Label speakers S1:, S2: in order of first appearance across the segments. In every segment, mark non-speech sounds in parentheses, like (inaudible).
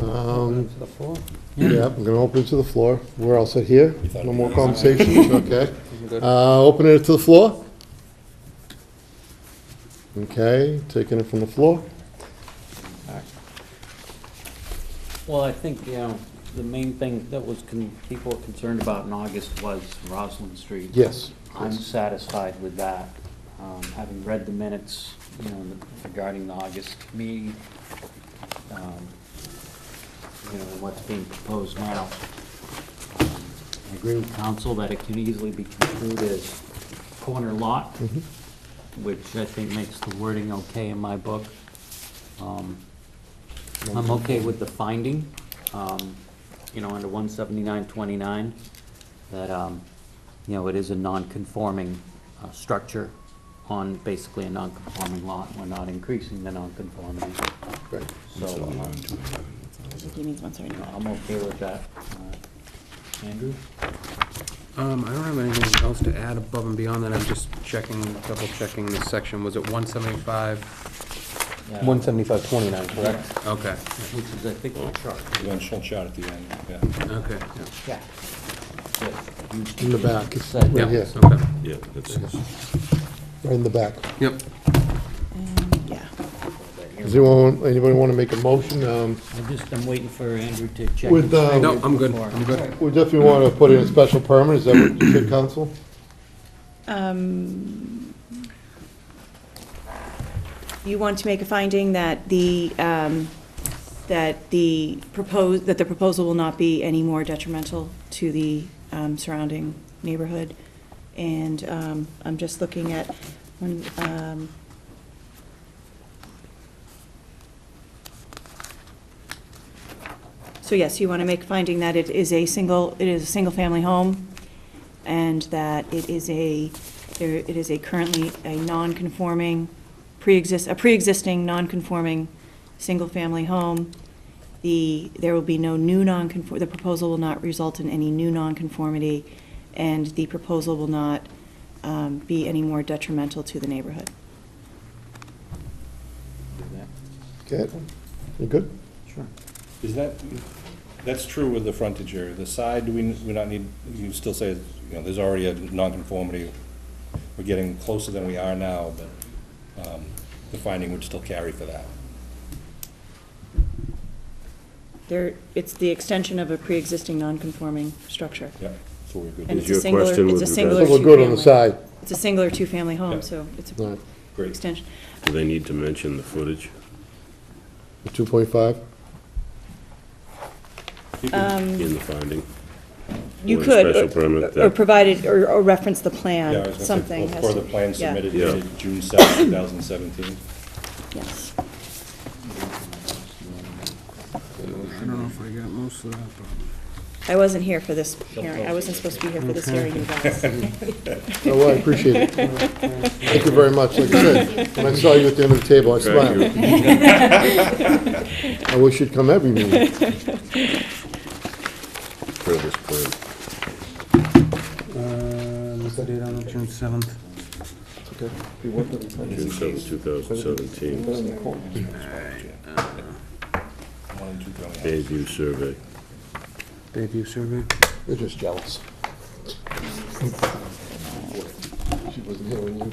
S1: Um,
S2: To the floor.
S1: Yeah, I'm gonna open it to the floor. We're all set here.
S3: thought
S1: No
S3: we
S1: more
S3: were-
S1: conversations, okay?
S2: Good.
S1: Uh, open it to the floor. Okay, taking it from the floor.
S2: Well, I think, you know, the main thing that was, con- people were concerned about in August was Roslyn Street.
S1: Yes.
S2: I'm satisfied with that, um, having read the minutes, you know, regarding the August meeting, um, you know, what's being proposed now. um, I agree with council that it can easily be construed as corner lot,
S1: Mm-hmm.
S2: which I think makes the wording okay in my book. Um, I'm okay with the finding, um, you know, under one seventy-nine twenty-nine, that, um, you know, it is a non-conforming, uh, structure on basically a non-conforming lot. We're not increasing the non-conformity,
S1: Right.
S2: so, um,
S4: I think he means one seventy
S2: you know,
S4: nine.
S2: I'm okay with that. Uh, Andrew?
S5: Um, I don't have anything else to add above and beyond that, I'm just checking, double checking this section, was it one seventy-five?
S2: Yeah.
S5: One seventy-five twenty-nine,
S2: correct?
S5: Okay,
S2: Which is, I think, the chart.
S3: One short shot at the end, yeah.
S5: okay,
S2: Yeah.
S1: In the back, it's
S2: Said.
S1: right
S5: yeah,
S1: here,
S5: yeah, okay,
S6: Yeah, that's,
S1: right in the back.
S5: yep.
S4: Um, yeah.
S1: Does anyone, anybody want to make a motion? Um,
S2: I just, I'm waiting for Andrew to check.
S1: With,
S2: his
S1: uh,
S2: thing
S5: No, I'm good,
S2: before.
S5: I'm good.
S1: we definitely want to put in a special permit, is that what you said, council?
S4: Um, You want to make a finding that the, um, that the proposed, that the proposal will not be any more detrimental to the um, surrounding neighborhood. And um, I'm just looking at, one, um, so yes, you want to make a finding that it is a single, it is a single-family home, and that it is a, there, it is a currently a non-conforming, pre-exist, a pre-existing non-conforming single-family home. The, there will be no new non-conform, the proposal will not result in any new non-conformity, and the proposal will not um, be any more detrimental to the neighborhood.
S2: Do that.
S1: Okay, you good?
S2: Sure.
S3: Is that, that's true with the frontage area, the side, do we, we not need, you still say, you know, there's already a nonconformity. We're getting closer than we are now, but, um, the finding would still carry for that.
S4: There, it's the extension of a pre-existing non-conforming structure.
S3: Yeah, so we're
S4: And
S3: good,
S6: Is
S4: it's a
S6: your
S4: singular,
S6: question
S4: it's a
S6: with regards-
S1: So
S4: singular
S1: we're good on the
S4: two-family.
S1: side.
S4: It's a single or two-family
S3: Yeah.
S4: home, so it's
S1: All right,
S4: a
S3: great.
S4: extension.
S6: do they need to mention the footage?
S1: 2.5?
S3: You
S4: um,
S3: can-
S6: in the finding.
S4: You
S6: Or a
S4: could,
S6: special
S4: or-
S6: permit
S4: or
S6: that-
S4: provided, or or reference the
S3: Yeah, I was
S4: plan,
S3: gonna say,
S4: something.
S3: or
S4: has
S3: For
S4: to-
S3: the plan
S4: yeah,
S3: submitted
S6: Yeah.
S3: dated June seventh, two thousand seventeen.
S4: yes.
S5: I don't know if I got most of that, but.
S4: I wasn't here for this hearing, I wasn't supposed to be here for this hearing,
S1: (laughs)
S4: you guys.
S1: Oh, well, I appreciate it. Thank you very much. Like I said, when I saw you at the end of the table, I smiled. I wish you'd come every
S7: (laughs)
S1: meeting.
S6: For this plan.
S5: Uh, what's the date on it, June seventh?
S6: June seventh, two thousand seventeen,
S3: One and two going out.
S6: Bayview survey.
S5: Bayview survey?
S1: You're just jealous. She wasn't here when you.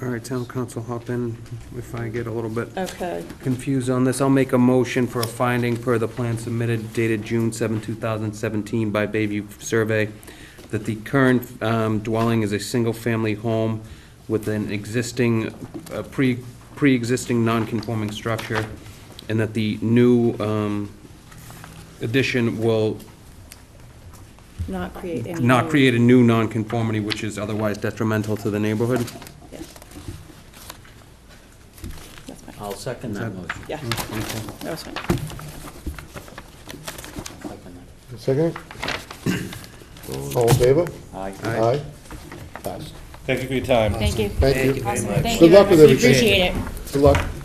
S5: All right, town council, hop in if I get a little bit
S4: (laughs) Okay,
S5: confused on this. I'll make a motion for a finding per the plan submitted dated June 7, 2017 by Bayview Survey, that the current um, dwelling is a single-family home with an existing, a pre, pre-existing non-conforming structure, and that the new um, addition will
S4: not create any.
S5: not
S4: new-
S5: create a new non-conformity which is otherwise detrimental to the neighborhood.
S4: yeah. That's fine,
S2: I'll second that motion.
S4: yeah,
S1: Mm-hmm.
S4: that was fine.
S2: Second that.
S1: Second? All in favor?
S2: Aye.
S1: Aye. Passed.
S3: Thank you for your time.
S7: Thank you.
S1: Thank you.
S7: Awesome, thank you.
S1: Good luck with
S7: everybody.
S1: everything.
S7: Appreciate it.
S1: Good luck.